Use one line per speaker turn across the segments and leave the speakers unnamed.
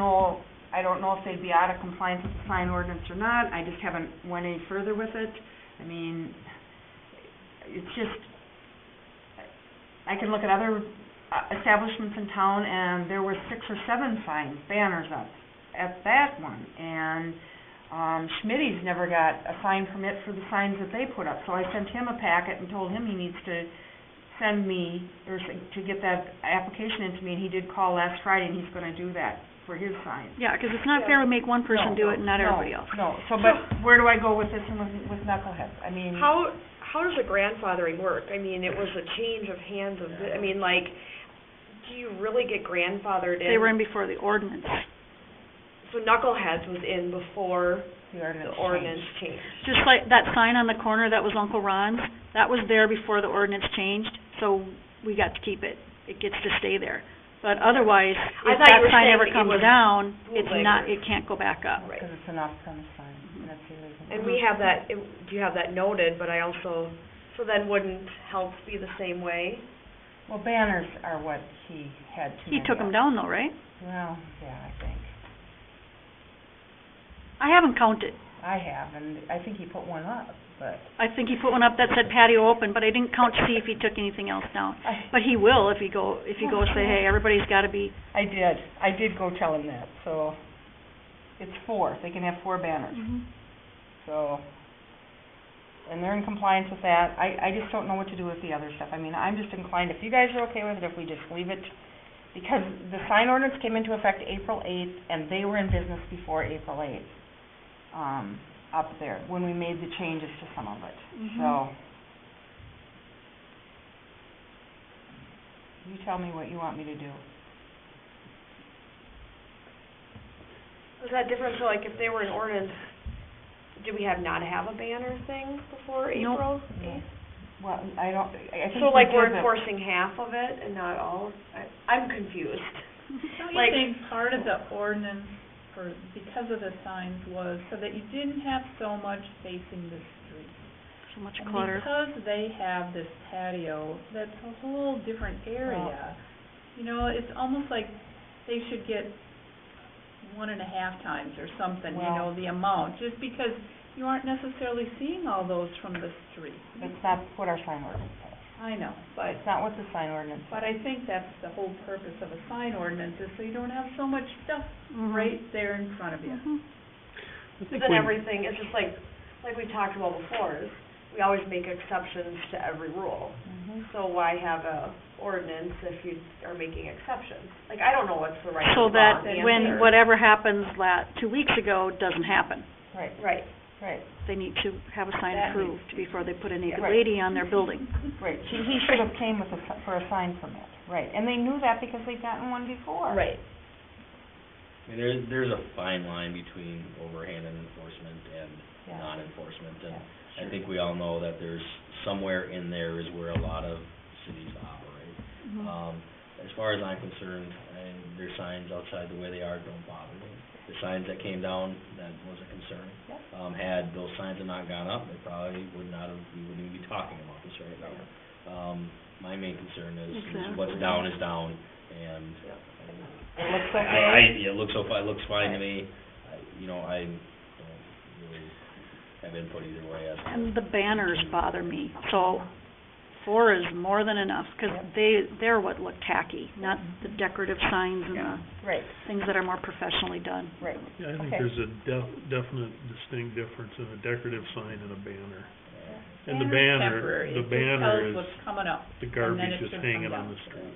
know, I don't know if they'd be out of compliance with the sign ordinance or not, I just haven't went any further with it. I mean, it's just, I can look at other uh, establishments in town, and there were six or seven signs, banners up at that one, and, um, Schmitty's never got a sign permit for the signs that they put up, so I sent him a packet and told him he needs to send me, or s- to get that application into me, and he did call last Friday, and he's gonna do that for his sign.
Yeah, 'cause it's not fair to make one person do it and not
No,
everybody else.
No, so, but where do I go with this and with, with knuckleheads? I mean,
How, how does the grandfathering work? I mean, it was a change of hands of, I mean, like, do you really get grandfathered in?
They were in before the ordinance.
So knuckleheads was in before
the ordinance
the
changed.
ordinance changed.
Just like that sign on the corner that was Uncle Ron's, that was there before the ordinance changed, so we got to keep it. It gets to stay there. But otherwise,
I
if
thought you
that
were
sign
saying
ever
that it
comes
was
down, it's
bootleg
not,
or-
it can't go back up.
Right.
Oh, Because it's an off-premise sign, and that's illegal.
And we have that, it- you have that noted, but I also, so then wouldn't help be the same way?
Well, banners are what he had too
He
many
took them
of.
down though, right?
Well, yeah, I think.
I haven't counted.
I have, and I think he put one up, but
I think he put one up that said patio open, but I didn't count to see if he took anything else down.
I,
But he will if you go, if you go say, hey, everybody's gotta be,
I did, I did go tell him that, so it's four, they can have four banners,
Mm-hmm.
so. And they're in compliance with that, I, I just don't know what to do with the other stuff, I mean, I'm just inclined, if you guys are okay with it, if we just leave it, because the sign ordinance came into effect April eighth, and they were in business before April eighth, um, up there, when we made the changes to some of it,
Mhm.
Mm-hmm.
so. You tell me what you want me to do.
Is that different, so like if they were in ordinance, did we have not have a banner thing before
Nope.
April
No.
eighth?
Well, I don't, I I think.
So like
we
we're
did the-
enforcing half of it and not all, I, I'm confused.
Don't
Like-
you think part of the ordinance for, because of the signs was so that you didn't have so much facing the street?
so much
And
clutter.
because they have this patio, that's a whole different area. You know, it's almost like they should get one and a half times or something, you
Well-
know, the amount, just because you aren't necessarily seeing all those from the street.
It's not what our sign ordinance says.
I know, but
It's not what the sign ordinance
But I think that's the whole purpose of a sign ordinance, is so you don't have so much stuff
Mhm.
right there in front of you.
Mhm.
I think
Then
we-
everything, it's just like, like we talked about before, is we always make exceptions to every rule.
says.
So why have a ordinance if you are making exceptions? Like, I don't know what's the right
So
or
that
wrong answer.
when whatever happens la two weeks ago doesn't happen.
Right,
Right,
right,
They need to have a sign
That
approved before they put a naked
Right.
lady on their building.
right. He, he should have came with a, si- for a sign permit, right. And they knew that because they've gotten one before.
right.
I mean, there's, there's a fine line between overhand and enforcement and
Yeah.
non-enforcement,
Yeah,
and I think we all know that there's, somewhere in there is where a lot of cities operate.
Mm-hmm.
Mm-hmm.
Um, as far as I'm concerned, and their signs outside the way they are don't bother me. The signs that came down, that was a concern.
Yep.
Um, had those signs have not gone up, they probably would not have, we wouldn't even be talking about this right now. Um, my main concern is, is what's
Exactly.
down is down, and
It looks
I,
okay.
I, it looks so fi- it looks fine to me, I, you know, I don't really have input either way as to.
And the banners bother me, so four is more than enough, 'cause
Yep.
they, they're what look tacky, not the
Mm-hmm.
decorative signs and the
Yeah.
Right,
things that are more professionally done.
right.
Yeah, I think
Okay.
there's a def- definite distinct difference in a decorative sign and a banner.
Yeah.
And the
Banner's
banner,
temporary.
the
It just
banner
tells
is
what's coming up. and
the
then
garbage
it's
just
gonna
hanging
come
on
down.
the street.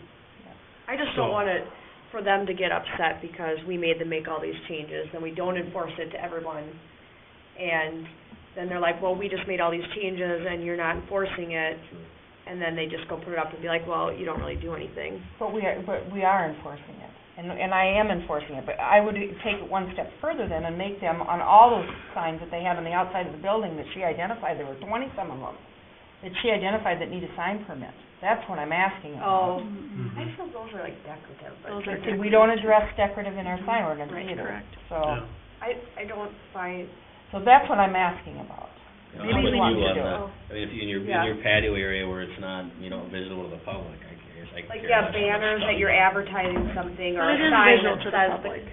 I just don't
So-
want it, for them to get upset because we made them make all these changes, and we don't enforce it to everyone. And then they're like, well, we just made all these changes and you're not enforcing it,
Sure.
and then they just go put it up and be like, well, you don't really do anything.
But we are, but we are enforcing it, and, and I am enforcing it, but I would take it one step further then and make them, on all those signs that they have on the outside of the building that she identified, there were twenty-some of them, that she identified that need a sign permit. That's what I'm asking about.
Oh,
Mm-hmm.
Mhm.
I
Mm-hmm.
feel those are like decorative,
Those
but
are
See, we don't address decorative in our sign ordinance
Oh. Right,
either.
correct.
So,
Yeah.
I, I don't find,
so that's what I'm asking about.
Yeah,
Maybe
I'm with
we
you
want to
on
do
it.
the- I mean, if you, in your,
Yeah.
in your patio area where it's not, you know, visible to the public, I guess, I
like,
care. less
yeah,
about
banners
stuff.
that you're advertising something or
But it
a
is
sign
visual
that
to the
says the
public.